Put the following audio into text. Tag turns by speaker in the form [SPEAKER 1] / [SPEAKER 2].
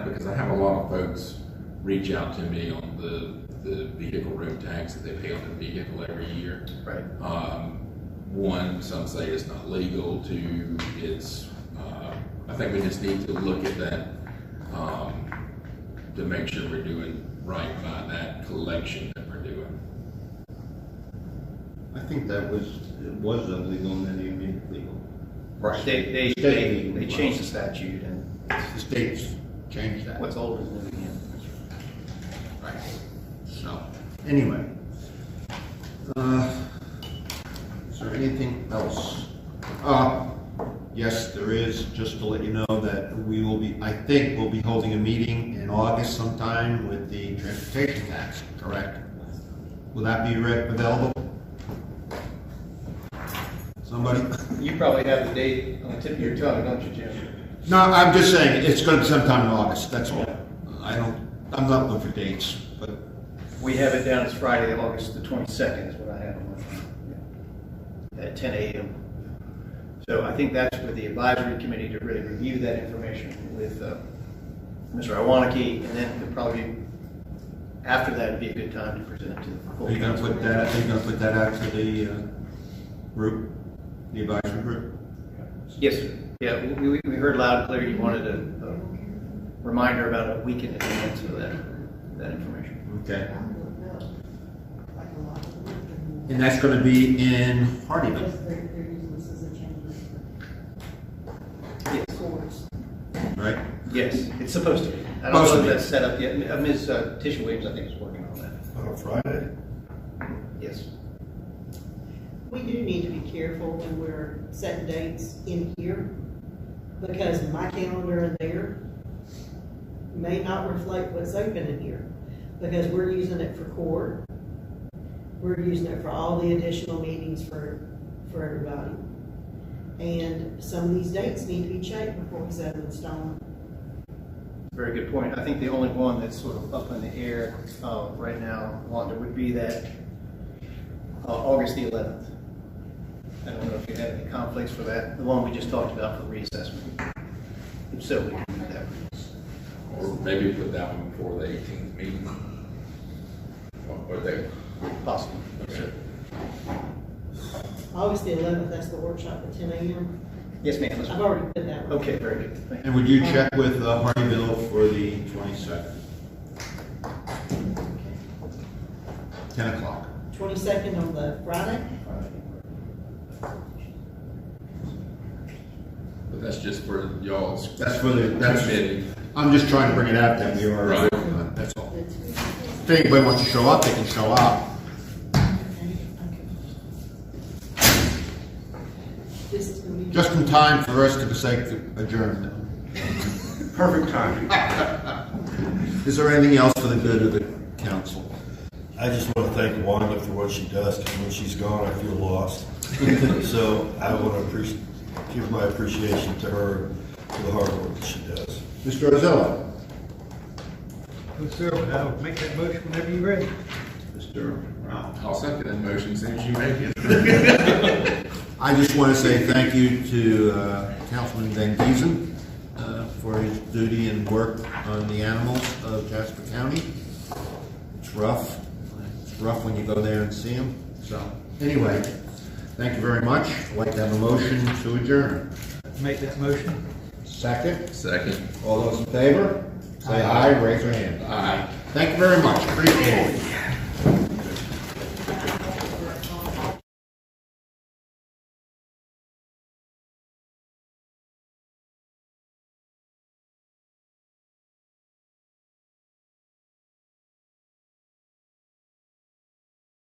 [SPEAKER 1] I have a lot of folks reach out to me on the, the vehicle road tax that they pay on their vehicle every year.
[SPEAKER 2] Right.
[SPEAKER 1] Um, one, some say it's not legal, two, it's, uh, I think we just need to look at that, um, to make sure we're doing right by that collection that we're doing.
[SPEAKER 3] I think that was, it was illegal and then they made it legal.
[SPEAKER 2] Right. They, they, they, they changed the statute and
[SPEAKER 3] The states changed that.
[SPEAKER 2] what's old is new again.
[SPEAKER 3] Right. So, anyway. Uh, Is there anything else? Uh, Yes, there is, just to let you know that we will be, I think we'll be holding a meeting in August sometime with the transportation tax, correct? Will that be re- available? Somebody?
[SPEAKER 2] You probably have the date on the tip of your tongue, don't you, Jim?
[SPEAKER 3] No, I'm just saying, it's gonna be sometime in August, that's all. I don't, I'm not looking for dates, but
[SPEAKER 2] We have it down as Friday, August the twenty-second is what I have on my, at ten AM. So I think that's for the advisory committee to really review that information with, uh, Mr. Iwaniki, and then it'd probably, after that, it'd be a good time to present it to the full
[SPEAKER 3] Are you gonna
[SPEAKER 2] council.
[SPEAKER 3] put that, are you gonna put that out to the uh, group, the advisory group?
[SPEAKER 2] Yes, sir. yeah, we, we, we heard loud and clear, you wanted a, a reminder about a week in advance of that, that information.
[SPEAKER 3] Okay. And that's gonna be in Hardyville, right?
[SPEAKER 2] Yes, it's supposed to be. I don't
[SPEAKER 3] Supposed
[SPEAKER 2] know
[SPEAKER 3] to
[SPEAKER 2] if
[SPEAKER 3] be.
[SPEAKER 2] that's set up yet, Uh, Ms. uh, Tisha Williams, I think, is working on that,
[SPEAKER 4] On a Friday?
[SPEAKER 2] yes.
[SPEAKER 5] We do need to be careful when we're setting dates in here, because my calendar in there may not reflect what's open in here, because we're using it for court. We're using it for all the additional meetings for, for everybody. And some of these dates need to be checked before we set them in stone.
[SPEAKER 2] Very good point. I think the only one that's sort of up in the air uh, right now, Wanda, would be that uh, August the 11th. I don't know if you have any conflicts for that, the one we just talked about for reassessment. If so, we can do that.
[SPEAKER 1] Or maybe put that one before the eighteenth meeting. What, what they,
[SPEAKER 2] Possible.
[SPEAKER 1] okay.
[SPEAKER 5] August the eleventh, that's the workshop at ten AM.
[SPEAKER 2] Yes, ma'am. let's-
[SPEAKER 5] I've already put that one.
[SPEAKER 2] Okay, very good. Thank you.
[SPEAKER 3] And would you check with uh, Hardyville for the twenty-second? Ten o'clock.
[SPEAKER 5] Twenty-second on the Friday?
[SPEAKER 1] but that's just for y'all's.
[SPEAKER 3] That's for the, that's,
[SPEAKER 1] committee.
[SPEAKER 3] I'm just trying to bring it out that we are,
[SPEAKER 1] Right.
[SPEAKER 3] uh, that's all. If anybody wants to show up, they can show up.
[SPEAKER 5] This is gonna be.
[SPEAKER 3] Just in time for us to say adjournment.
[SPEAKER 4] Perfect timing.
[SPEAKER 3] Is there anything else for the good of the council?
[SPEAKER 4] I just want to thank Wanda for what she does, because when she's gone, I feel lost. So I want to appreci give my appreciation to her for the hard work that she does.
[SPEAKER 3] Mr. Ozella?
[SPEAKER 6] Yes, sir, but I'll make that motion whenever you're ready.
[SPEAKER 3] Mr. Rao?
[SPEAKER 1] I'll second that motion as soon as you make it.
[SPEAKER 3] I just want to say thank you to uh, Councilman Van Giesen uh, for his duty and work on the animals of Jasper County. It's rough. It's rough when you go there and see them. So, anyway, thank you very much. I'd like to have a motion to adjourn.
[SPEAKER 6] Make that motion.
[SPEAKER 3] Second,
[SPEAKER 1] Second.
[SPEAKER 3] all those in favor? Say aye, raise your hand.
[SPEAKER 1] Aye.
[SPEAKER 3] Thank you very much. Appreciate it.